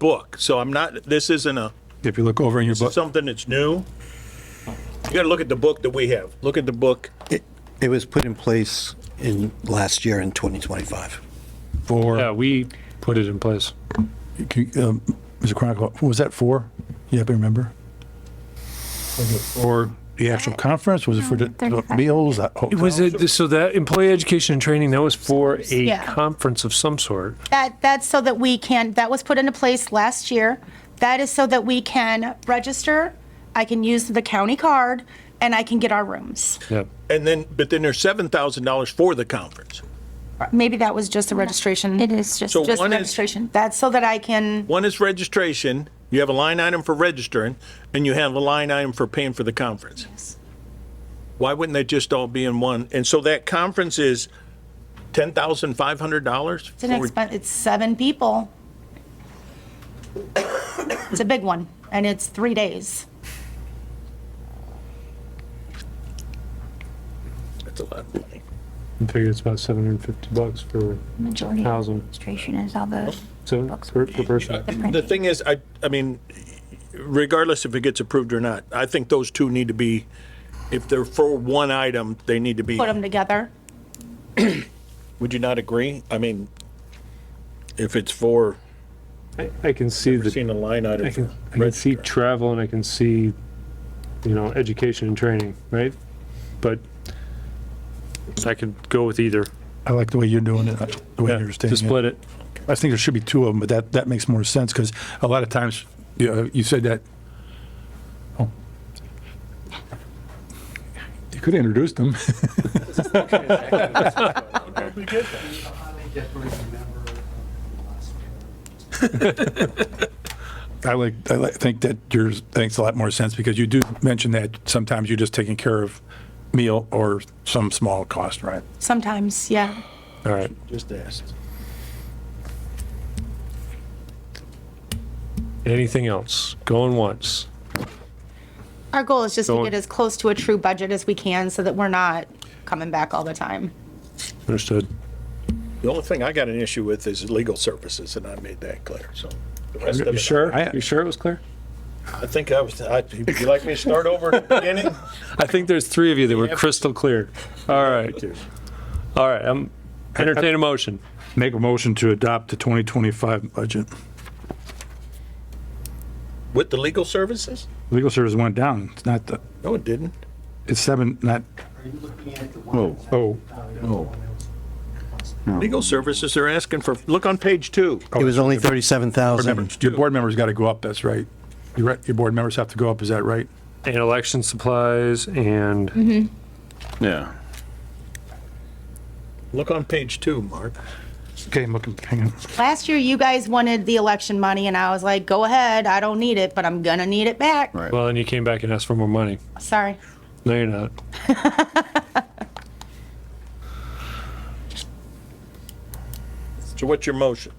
book, so I'm not, this isn't a, If you look over in your book, something that's new. You gotta look at the book that we have. Look at the book. It, it was put in place in last year in 2025. Yeah, four, we put it in place. can you, um, Mr. Chronicle, was that four? You happen to remember? Was it for the actual conference? Was it for the the meals? oh, that Was hotel? it, so that employee education and training, that was for a Yeah. conference of some sort? That, that's so that we can, that was put into place last year. That is so that we can register, I can use the county card, and I can get our rooms. Yeah. And then, but then there's seven thousand dollars for the conference. Maybe that was just the registration. It is just, So Just one is- registration. That's so that I can, One is registration, you have a line item for registering, and you have a line item for paying for the conference. Why wouldn't they just all be in one? And so that conference is ten thousand five hundred dollars? it's an expense, it's seven people. It's a big one, and it's three days. That's a lot of money. I figured it's about 750 bucks for, majority of Thousand. administration is all the so, Bucks. per per person. The thing is, I, I mean, regardless if it gets approved or not, I think those two need to be, if they're for one item, they need to be, Put them together. would you not agree? I mean, if it's for, I- I can see I've the, seen a line I item. can, for I can see registrar. travel and I can see, you know, education and training, right? But I could go with either, I like the way you're doing it, the way you're stating to it. split it. I think there should be two of them, but that, that makes more sense, because a lot of times, you know, you said that. oh. You could have introduced them. I like, I like, think that yours makes a lot more sense, because you do mention that sometimes you're just taking care of meal or some small cost, right? Sometimes, yeah. All right. Just asked. Anything else? Going once? Our goal is just to Going- get as close to a true budget as we can so that we're not coming back all the time. Understood. The only thing I got an issue with is legal services, and I made that clear, so. the rest of You it, sure? I- You sure it was clear? I think I was, I, would you like me to start over at the beginning? I think there's three of you that were crystal clear. All right. All right, I'm entertain a motion. Make a motion to adopt the 2025 budget. With the legal services? Legal service went down. It's not the, No, it didn't. it's seven, not, Oh, oh, oh. Legal services are asking for, look on page two. It was only board 37,000. members. Your board members got to go up, that's right. Your, re- your board members have to go up, is that right? And election supplies and Yeah. Look on page two, Mark. Okay, I'm looking, hang on. Last year, you guys wanted the election money, and I was like, go ahead, I don't need it, but I'm gonna need it back. Right. well, and you came back and asked for more money. Sorry. No, you're not. So what's your motion?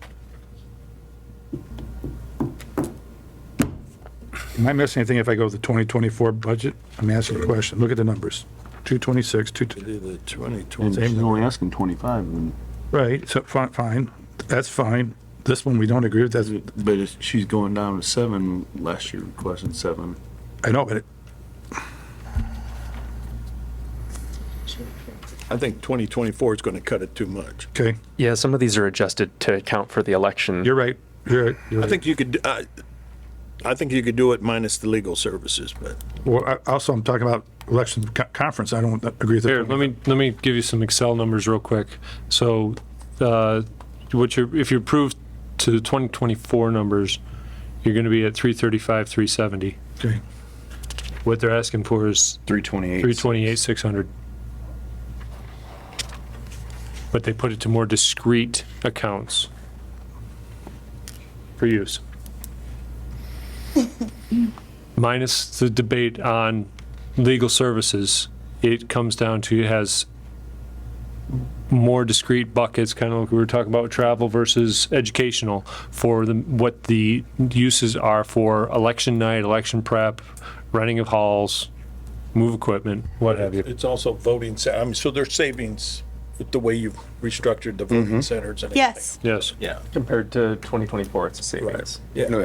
Am I missing anything if I go with the 2024 budget? I'm asking a question. Look at the numbers. 226, 2, Do the 2020. And she's only asking 25, and- right, so fi- fine, that's fine. This one we don't agree with, that's, but it's- she's going down to seven last year, requesting seven. I know, but it- I think 2024 is going to cut it too much. okay, Yeah, some of these are adjusted to account for the election. you're right, you're right. I you're right. think you could, I, I think you could do it minus the legal services, but Well, I- also, I'm talking about election co- conference. I don't agree with that. Here, let me let me give you some Excel numbers real quick. So, uh, what you if you approve to the 2024 numbers, you're going to be at 335, 370. Okay. What they're asking for is 328. 328, 600. But they put it to more discrete accounts for use. Minus the debate on legal services, it comes down to, it has more discrete buckets, kind of like we were talking about travel versus educational, for the, what the uses are for election night, election prep, renting of halls, move equipment, what have you. it's also voting, sa- I mean, so their savings with the way you've Mm-hmm. restructured the voting centers and everything. Yes. Yes. Yeah, Compared to 2024, it's a savings. yeah.